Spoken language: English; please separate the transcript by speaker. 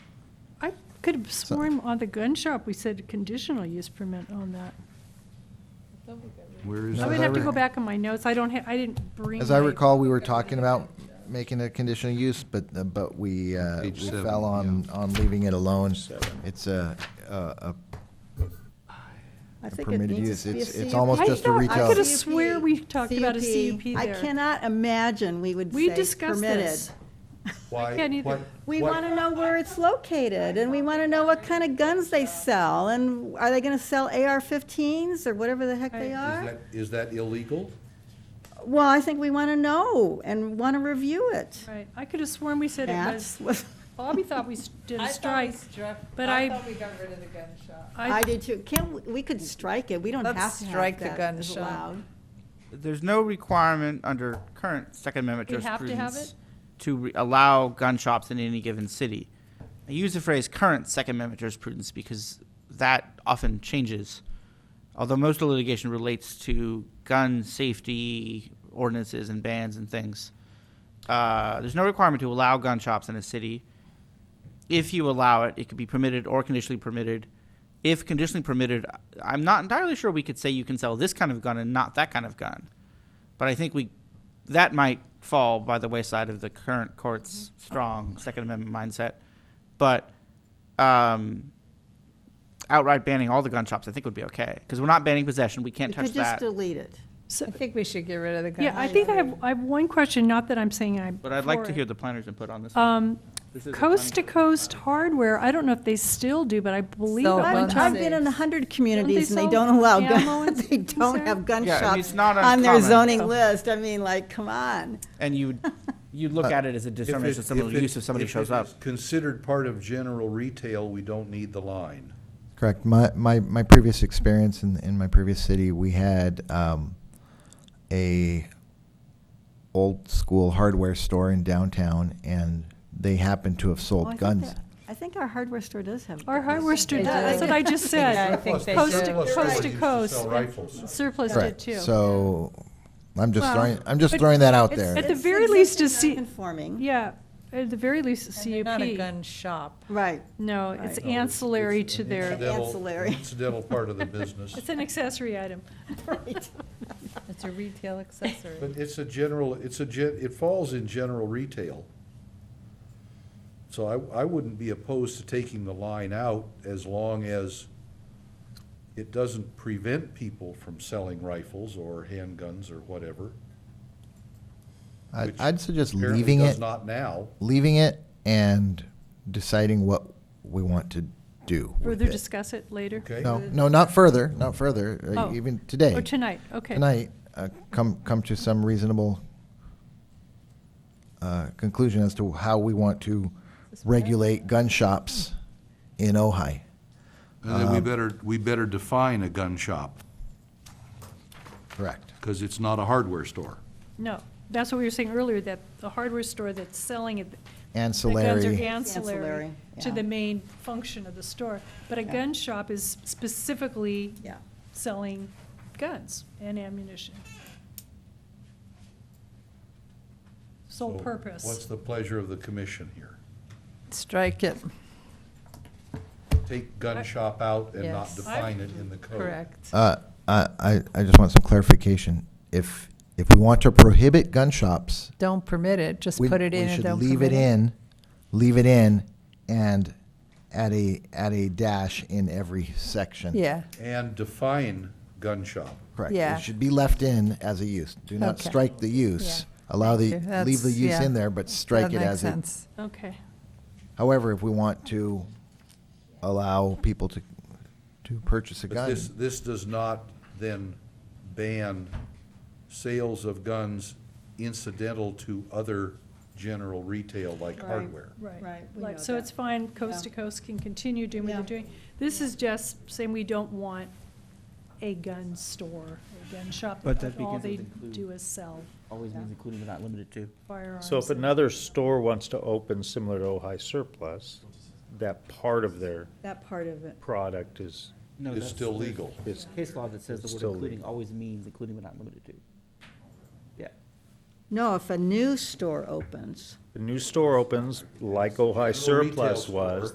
Speaker 1: Could have sworn on the gun shop, we said conditional use permit on that.
Speaker 2: Where is that?
Speaker 1: I would
Speaker 3: as I
Speaker 1: have to
Speaker 3: re-
Speaker 1: go back on my notes, I don't have, I didn't bring.
Speaker 3: As I
Speaker 1: my-
Speaker 3: recall, we were talking about making a conditional use, but, uh, but we, uh, we
Speaker 2: Page seven,
Speaker 3: fell on,
Speaker 2: yeah.
Speaker 3: on leaving it alone. It's a, a, a
Speaker 4: I
Speaker 3: a
Speaker 4: think it
Speaker 3: permitted
Speaker 4: needs
Speaker 3: use.
Speaker 4: to be a
Speaker 3: It's, it's
Speaker 4: CUP.
Speaker 3: almost
Speaker 1: I
Speaker 3: just a
Speaker 1: thought- I
Speaker 3: retail.
Speaker 1: could've swear we talked about a CUP
Speaker 4: I
Speaker 1: there.
Speaker 4: cannot imagine we would
Speaker 1: We
Speaker 4: say
Speaker 1: discussed
Speaker 4: permitted.
Speaker 1: this.
Speaker 5: Why-
Speaker 1: can't either.
Speaker 5: what-
Speaker 4: We
Speaker 5: what-
Speaker 4: want to know where it's located, and we want to know what kind of guns they sell, and are they going to sell AR-15s or whatever the heck they
Speaker 1: Right.
Speaker 4: are?
Speaker 5: Is that- Is that illegal?
Speaker 4: Well, I think we want to know and want to review it.
Speaker 1: Right, I could have sworn we said it
Speaker 4: That's
Speaker 1: was,
Speaker 4: what-
Speaker 1: Bobby thought we s- did
Speaker 6: I
Speaker 1: a
Speaker 6: thought we
Speaker 1: strike.
Speaker 6: struck,
Speaker 1: but I-
Speaker 6: I thought we got rid of the gun shop.
Speaker 4: I did too. Can't, we- we could strike it. We don't have
Speaker 6: Let's
Speaker 4: to have
Speaker 6: strike the
Speaker 4: that
Speaker 6: gun
Speaker 4: as
Speaker 6: shop.
Speaker 4: allowed.
Speaker 7: There's no requirement under current Second Amendment
Speaker 1: We have to have
Speaker 7: jurisprudence to re- allow gun shops in any given city. I use the phrase current Second Amendment jurisprudence because that often changes. Although most of the litigation relates to gun safety ordinances and bans and things. Uh, there's no requirement to allow gun shops in a city. If you allow it, it could be permitted or conditionally permitted. If conditionally permitted, I'm not entirely sure we could say you can sell this kind of gun and not that kind of gun. But I think we, that might fall by the wayside of the current court's strong Second Amendment mindset. But um, outright banning all the gun shops, I think would be okay. Because we're not banning possession, we can't
Speaker 4: We could
Speaker 7: touch
Speaker 4: just
Speaker 7: that.
Speaker 4: delete it.
Speaker 1: So-
Speaker 6: I think we should get rid of the gun.
Speaker 1: Yeah, I think I have, I have one question, not that I'm saying I'm.
Speaker 7: But I'd like
Speaker 1: for
Speaker 7: to
Speaker 1: it.
Speaker 7: hear the planner's input on this. one.
Speaker 1: Um,
Speaker 7: This is a
Speaker 1: Coast to
Speaker 7: planning-
Speaker 1: Coast Hardware, I don't know if they still do, but I believe at
Speaker 6: So
Speaker 1: one
Speaker 4: I've,
Speaker 6: won't
Speaker 1: time.
Speaker 4: I've
Speaker 6: they?
Speaker 4: been in a hundred communities and they
Speaker 1: sell
Speaker 4: don't allow
Speaker 1: ammo and
Speaker 4: guns. They
Speaker 1: things
Speaker 4: don't
Speaker 1: there?
Speaker 4: have gun
Speaker 7: Yeah, I mean,
Speaker 4: shops
Speaker 7: it's not
Speaker 4: on their
Speaker 7: uncommon.
Speaker 4: zoning list. I mean, like, come on.
Speaker 7: And you, you look at it as a
Speaker 5: Uh, If it-
Speaker 7: determination of someone
Speaker 5: if
Speaker 7: who's
Speaker 5: it-
Speaker 7: use if somebody
Speaker 5: if it
Speaker 7: shows up.
Speaker 5: is Considered part of general retail, we don't need the line.
Speaker 3: Correct. My, my, my previous experience in, in my previous city, we had um, a old school hardware store in downtown, and they happened to have sold
Speaker 4: Well, Oh, I think
Speaker 3: guns.
Speaker 4: that- I think our hardware store does have.
Speaker 1: Our
Speaker 4: guns.
Speaker 1: hardware store
Speaker 6: They
Speaker 1: does, that's
Speaker 6: do.
Speaker 1: what I just said.
Speaker 6: Yeah, I think they
Speaker 1: Coast
Speaker 6: do.
Speaker 1: to,
Speaker 5: Surplus stores
Speaker 1: coast to
Speaker 5: used to
Speaker 1: coast.
Speaker 5: sell
Speaker 1: and
Speaker 5: rifles.
Speaker 1: Surplus
Speaker 3: Correct.
Speaker 1: did too.
Speaker 3: So I'm just
Speaker 1: Well,
Speaker 3: throwing I'm just
Speaker 1: but
Speaker 3: throwing that out
Speaker 4: It's-
Speaker 3: there.
Speaker 1: At the
Speaker 4: it's
Speaker 1: very least to
Speaker 4: existing
Speaker 1: see-
Speaker 4: non-conforming.
Speaker 1: Yeah, at the very least, a
Speaker 6: And they're not a
Speaker 1: CUP.
Speaker 6: gun shop.
Speaker 4: Right.
Speaker 1: No, it's
Speaker 4: Right.
Speaker 5: No, it's-
Speaker 1: ancillary
Speaker 5: it's
Speaker 1: to
Speaker 5: an
Speaker 1: their,
Speaker 5: incidental-
Speaker 4: Ancillary.
Speaker 5: Incidental part of the business.
Speaker 1: it's an accessory item.
Speaker 6: It's a retail accessory.
Speaker 5: But it's a general, it's a, gen- it falls in general retail. So I, I wouldn't be opposed to taking the line out as long as it doesn't prevent people from selling rifles or handguns or whatever.
Speaker 3: I'd,
Speaker 5: which
Speaker 3: I'd suggest
Speaker 5: apparently
Speaker 3: leaving
Speaker 5: does
Speaker 3: it,
Speaker 5: not now.
Speaker 3: leaving it, and deciding what we want to do. with
Speaker 1: Further
Speaker 3: it.
Speaker 1: discuss it later.
Speaker 5: Okay.
Speaker 3: No, no, not further, not further. uh,
Speaker 1: Oh.
Speaker 3: Even today,
Speaker 1: Or tonight, okay.
Speaker 3: tonight, uh, come come to some reasonable uh, conclusion as to how we want to regulate gun shops in Ojai.
Speaker 5: And then we better, we better define a gun shop,
Speaker 3: Correct.
Speaker 5: because it's not a hardware store.
Speaker 1: No, that's what we were saying earlier, that the hardware store that's selling it, the guns are
Speaker 3: Ancillary.
Speaker 1: ancillary
Speaker 4: Ancillary,
Speaker 1: to
Speaker 4: yeah.
Speaker 1: the main function of the store. But a
Speaker 4: Yeah.
Speaker 1: gun shop is specifically
Speaker 4: Yeah.
Speaker 1: selling guns and ammunition. Sole
Speaker 5: So What's
Speaker 1: purpose.
Speaker 5: the pleasure of the commission here?
Speaker 6: Strike it,
Speaker 5: Take gun shop out and not
Speaker 6: Yes.
Speaker 5: define it in the code.
Speaker 6: correct.
Speaker 3: Uh, I, I I just want some clarification. If if we want to prohibit gun shops,
Speaker 6: Don't permit it, just
Speaker 3: we-
Speaker 6: put it in
Speaker 3: We
Speaker 6: and
Speaker 3: should
Speaker 6: don't
Speaker 3: leave it
Speaker 6: permit it.
Speaker 3: in, leave it in, and add a, add a dash in every section.
Speaker 6: Yeah,
Speaker 5: And define gun shop.
Speaker 3: Correct.
Speaker 6: Yeah.
Speaker 3: It should be left in as a use. Do not
Speaker 6: Okay.
Speaker 3: strike the use. Allow the,
Speaker 6: Thank you.
Speaker 3: leave the
Speaker 6: That's-
Speaker 3: use
Speaker 6: yeah.
Speaker 3: in there, but strike
Speaker 6: that
Speaker 3: it
Speaker 6: makes
Speaker 3: as a.
Speaker 6: sense.
Speaker 1: Okay,
Speaker 3: However, if we want to allow people to, to purchase a
Speaker 5: But
Speaker 3: gun,
Speaker 5: this, this does not then ban sales of guns incidental to other general retail like
Speaker 4: Right.
Speaker 5: hardware.
Speaker 1: right.
Speaker 4: Right, we
Speaker 1: Like,
Speaker 4: know
Speaker 1: so
Speaker 4: that.
Speaker 1: it's fine, coast to
Speaker 4: Yeah.
Speaker 1: coast can continue doing what they're
Speaker 4: Yeah.
Speaker 1: doing. This is just saying we don't want a gun store, a gun shop.
Speaker 7: But that
Speaker 1: All
Speaker 7: begins
Speaker 1: they
Speaker 7: with include.
Speaker 1: do is sell
Speaker 7: Always means including but not limited to.
Speaker 1: firearms.
Speaker 8: So if
Speaker 1: and-
Speaker 8: another store wants to open similar to Ojai Surplus, that part of their
Speaker 4: That part of it.
Speaker 8: product is,
Speaker 7: No,
Speaker 5: It's
Speaker 7: that's-
Speaker 5: still
Speaker 7: there's-
Speaker 5: legal.
Speaker 8: is,
Speaker 7: Case law that says the
Speaker 8: It's
Speaker 7: word
Speaker 8: still
Speaker 7: including
Speaker 8: legal.
Speaker 7: always means including but not limited to. Yeah.
Speaker 4: No, if a new store opens.
Speaker 8: the new store opens like Ojai
Speaker 5: Little retail
Speaker 8: Surplus
Speaker 5: store.
Speaker 8: was,